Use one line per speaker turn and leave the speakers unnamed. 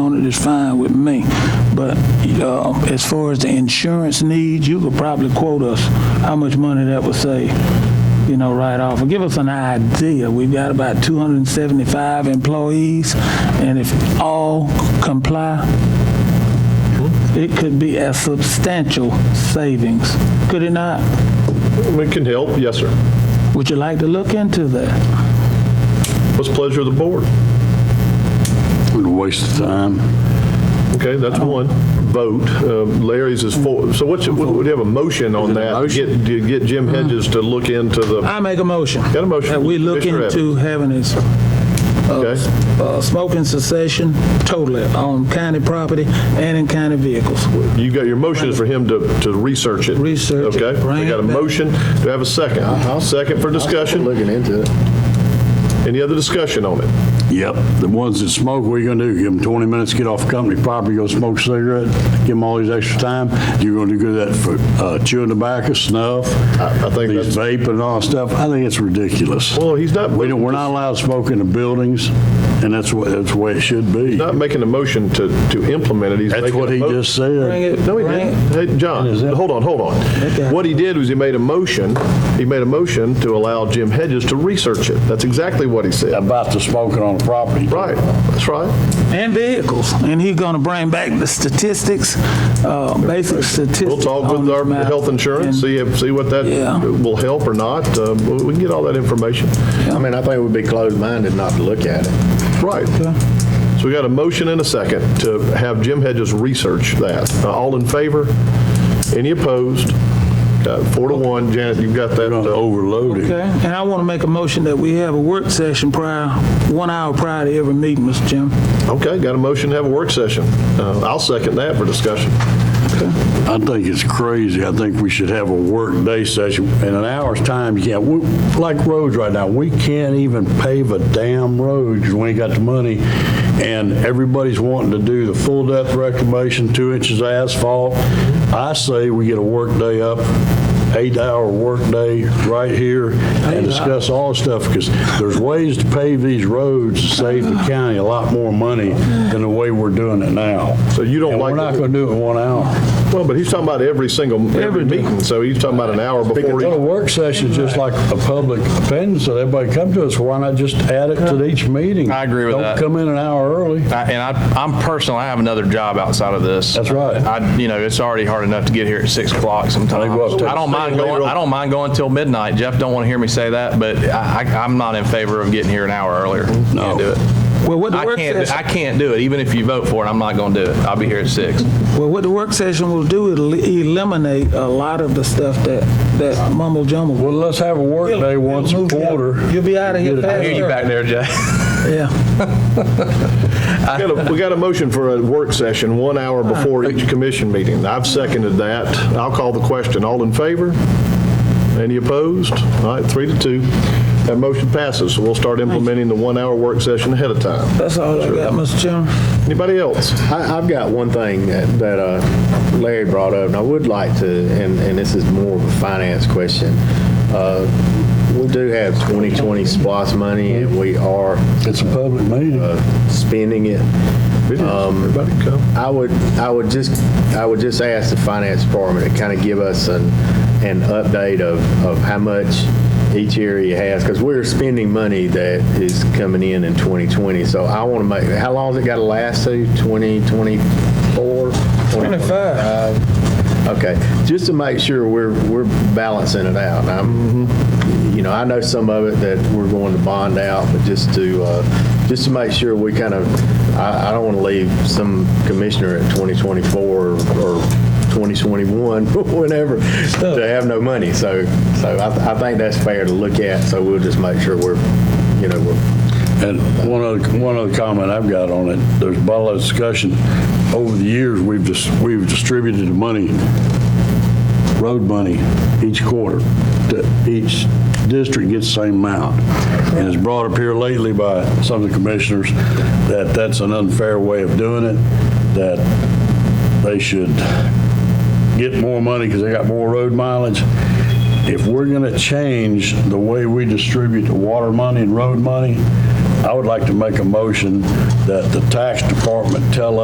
on it is fine with me. But uh, as far as the insurance needs, you could probably quote us how much money that would save, you know, right off. Or give us an idea. We've got about 275 employees, and if all comply, it could be a substantial savings, could it not?
We can help, yes, sir.
Would you like to look into that?
What's the pleasure of the board?
What a waste of time.
Okay, that's one. Vote. Um, Larry's is four, so what's, would you have a motion on
Is it a
that?
motion?
Get- to Get Jim Hedges to look into the,
I make a motion.
Got a motion
That
from
we look
Commissioner Evans.
into having this
okay?
uh, smoking cessation totally on county property and in county vehicles.
You got, your motion is for him to, to research it.
Research it,
Okay,
bring
we got a
it back.
motion. Do I have a second? Second for discussion.
Looking into it.
Any other discussion on it?
Yep, the ones that smoke, what are you gonna do? Give them 20 minutes, get off company property, go smoke a cigarette, give them all these extra time? You're gonna do good at for uh, chewing tobacco, snuff,
I I think that's,
these vape and all that stuff? I think it's ridiculous.
well, he's not,
We don't, we're not allowed to smoke in the buildings, and that's what, that's the way it should be.
not making a motion to, to implement it. He's
That's
making
what
a
he
mo-
just
Bring it,
said.
No, he
bring
didn't.
it.
Hey, John, hold on, hold
Okay.
on. What he did was he made a motion, he made a motion to allow Jim Hedges to research it. That's exactly what he said.
About the smoking on the property.
Right, that's right.
And vehicles. And he's going to bring back the statistics, uh, basic statistics.
We'll talk
on
with
this
our
matter.
health insurance,
And-
see if, see what that
Yeah.
will help or not. Uh, We we can get all that information.
I mean, I think it would be closed-minded not to look at it.
Right. So we got a motion and a second to have Jim Hedges research that. Uh, All in favor? Any opposed? Uh, Four to one. Janet, you've got that.
Gonna
uh,
overload it.
Okay, and I want to make a motion that we have a work session prior, one hour prior to every meeting, Mr. Chairman.
Okay, got a motion to have a work session. Uh, I'll second that for discussion.
I think it's crazy. I think we should have a work day session. In an hour's time, you can't, we- like roads right now, we can't even pave a damn road because we ain't got the money. And everybody's wanting to do the full depth reclamation, two inches of asphalt. I say we get a work day up, eight-hour work day right here and discuss all the stuff because there's ways to pave these roads to save the county a lot more money than the way we're doing it now.
So you don't
And
like
we're
the-
not going to do it in one hour.
Well, but he's talking about every single, every meeting, so he's talking about an hour before.
Well, a
each-
work session's just like a public opinion, so everybody come to us, why not just add it to each meeting?
I agree with that.
Don't come in an hour early.
I- And I, I'm personal, I have another job outside of this.
That's right.
I, you know, it's already hard enough to get here at six o'clock sometimes.
They go up to-
I don't mind
Stay
going,
real-
I don't mind going till midnight. Jeff don't want to hear me say that, but I, I- I'm not in favor of getting here an hour earlier. No. Can't do it.
Well, what the
I
work
can't,
session,
I can't do it. Even if you vote for it, I'm not going to do it. I'll be here at six.
well, what the work session will do, it'll eliminate a lot of the stuff that, that mumble jumble.
Well, let's have a work day once a
Move out.
quarter.
You'll be out of here
Get it
fast.
done.
Hear you back
there, Jeff.
Yeah,
We got a- we got a motion for a work session, one hour before each commission meeting. I've seconded that. I'll call the question. All in favor? Any opposed? All right, three to two. That motion passes, so we'll start implementing the one-hour work session ahead of time.
that's all I got, Mr. Chairman.
Anybody else?
I, I've got one thing that, that uh, Larry brought up, and I would like to, and, and this is more of a finance question. Uh, We do have 2020 SPOS money, and we are
It's a public meeting.
uh, spending it.
Everybody come.
I would, I would just, I would just ask the finance department to kind of give us an, an update of, of how much each area has, because we're spending money that is coming in in 2020, so I want to make, how long has it got to last to, 2024? 25. Okay, just to make sure we're, we're balancing it out. I'm, you know, I know some of it that we're going to bond out, but just to, uh, just to make sure we kind of, I, I don't want to leave some commissioner at 2024 or 2021, whenever, to have no money. So, so I, I think that's fair to look at, so we'll just make sure we're, you know, we're,
And one other, one other comment I've got on it, there's been a lot of discussion. Over the years, we've just, we've distributed the money, road money, each quarter. to Each district gets the same amount. And it's brought up here lately by some of the commissioners that that's an unfair way of doing it, that they should get more money because they got more road mileage. If we're going to change the way we distribute the water money and road money, I would like to make a motion that the tax department tell